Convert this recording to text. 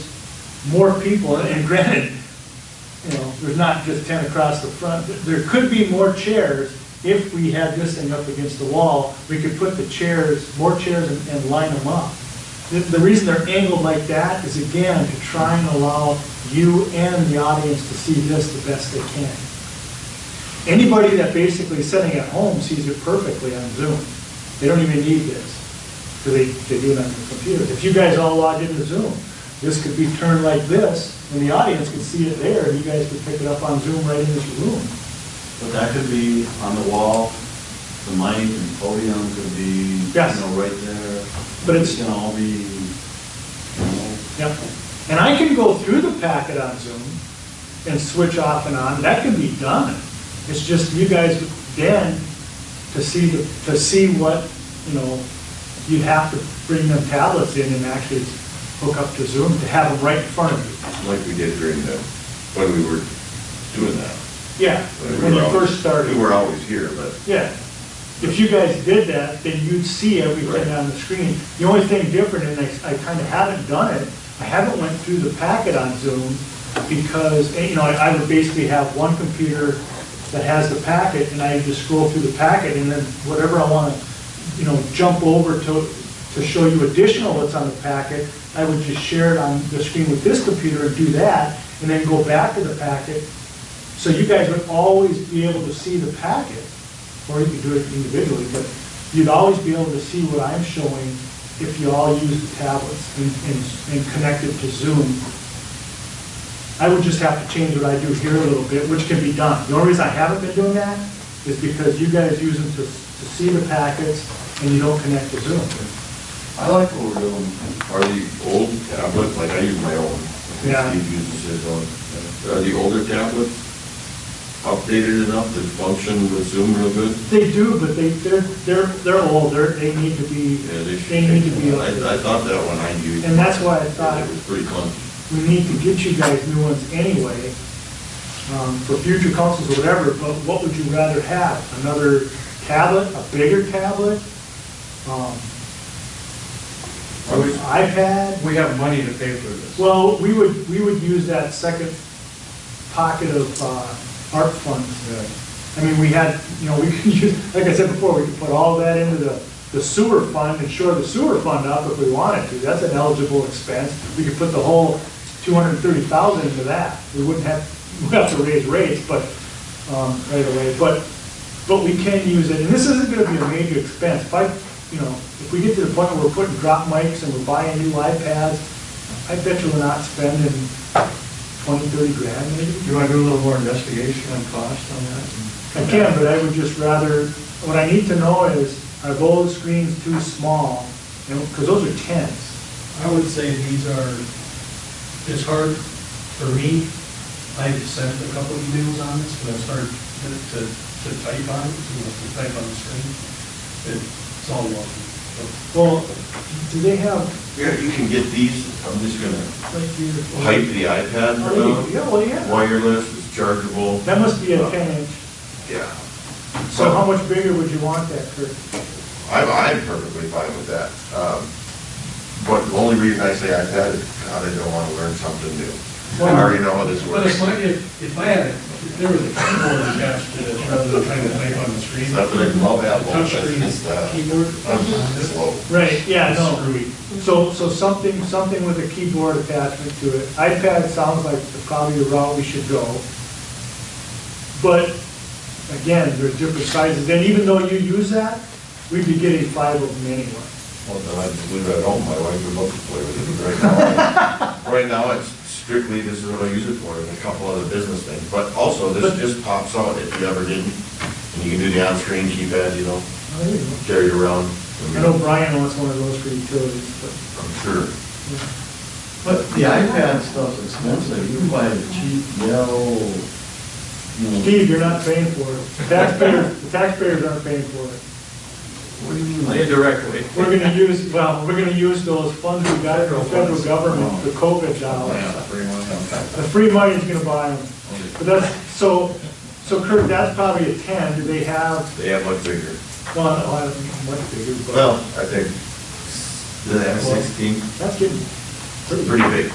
more people, and granted, you know, there's not just ten across the front, but there could be more chairs. If we had this thing up against the wall, we could put the chairs, more chairs and, and line them up. The, the reason they're angled like that is again, to try and allow you and the audience to see this the best they can. Anybody that basically is sitting at home sees it perfectly on Zoom. They don't even need this, because they, they do it on their computers. If you guys all logged into Zoom, this could be turned like this, and the audience could see it there, and you guys could pick it up on Zoom right in this room. But that could be on the wall, the mic and podium could be, you Yes. know, right there. But it's- gonna all be, you know, Yep. And I can go through the packet on Zoom and switch off and on. That can be done. It's just you guys then to see, the to see what, you know, you'd have to bring them tablets in and actually hook up to Zoom to have them right in front of you. like we did during the, when we were doing that. Yeah, when you were always- first started. We were always here, but Yeah. If you guys did that, then you'd see everything Right. on the screen. The only thing different, and I, I kind of haven't done it, I haven't went through the packet on Zoom because, eh, you know, I I would basically have one computer that has the packet and I just scroll through the packet and then whatever I want to, you know, jump over to, to show you additional what's on the packet, I would just share it on the screen with this computer and do that and then go back to the packet so you guys would always be able to see the packet, or you could do it individually, but you'd always be able to see what I'm showing if you all use the tablets and, and, and connect it to Zoom. I would just have to change what I do here a little bit, which can be done. The only reason I haven't been doing that is because you guys use them to, to see the packets and you don't connect to Zoom. I like what we're doing, are the old tablets, like I use my own. I think Yeah. Steve uses his own. Are the older tablets updated enough to function with Zoom real good? They do, but they, they're, they're, they're old, they're, they need to be, Yeah, they should. they need to be. I, I thought that one I used. And that's why I thought- It was pretty clunky. we need to get you guys new ones anyway, um, for future councils or whatever, but what would you rather have? Another tablet, a bigger tablet? Um, or an iPad? We have money to pay for this. Well, we would, we would use that second pocket of, uh, art funds. Yeah. I mean, we had, you know, we could use, like I said before, we could put all that into the, the sewer fund and shore the sewer fund up if we wanted to. That's an eligible expense. We could put the whole two hundred and thirty thousand into that. We wouldn't have, we'd have to raise rates, but, um, right away, but, but we can use it. And this isn't gonna be a major expense. If I, you know, if we get to the point where we're putting drop mics and we're buying new iPads, I bet you we're not spending twenty, thirty grand maybe. Do you want to do a little more investigation on cost on that? I can, but I would just rather, what I need to know is, are those screens too small? Because those are tents. I would say these are, it's hard for me, I've sent a couple of emails on this, but it's hard to, to to type on, it, you know, to type on the screen. It's all wonky. Well, do they have, Yeah, you can get these, I'm just gonna like, your? hype the iPad Oh, around. Yeah, well, yeah. Wireless, it's chargeable. That must be a ten inch. Yeah. So how much bigger would you want that, Kurt? I'm, I'm perfectly fine with that. Um, But the only reason I say iPad is, God, I don't want to learn something new. I already know how this But works. if I, if, if I had, a- if there was a keyboard attached to this, rather than trying to type on the screen. It's not that I love Apple, but Touchscreen it's, uh, keyboard. I'm slow. Right, yeah, Screwy. So, so something, something with a keyboard attachment to it. iPad sounds like the- probably the route we should go. But again, there's different sizes, and even though you use that, we'd be getting five of them anyway. Well, then I just leave it at home, my wife would love to play with it right now. Right now, it's strictly, this is what I use it for, and a couple other business things, but also, this But- just pops out if you ever didn't. And you can do the on-screen keypad, you know, Oh, there you go. carry it around. I know Brian wants one of those for utilities, but, I'm sure. But the iPad stuff's expensive, you can buy a cheap yellow, you know. Steve, you're not paying for it. The Taxpayers, the taxpayers aren't paying for it. What do you mean? like- Indirectly. We're gonna use, well, we're gonna use those funds we got from the federal government, the COVID dollars. Yeah, pretty much, okay. The free money's gonna buy them. But that's, so, so Kurt, that's probably a ten, do they have, They have much bigger. well, I don't know what figure, but Well, I think, the M sixteen, that's getting pretty big.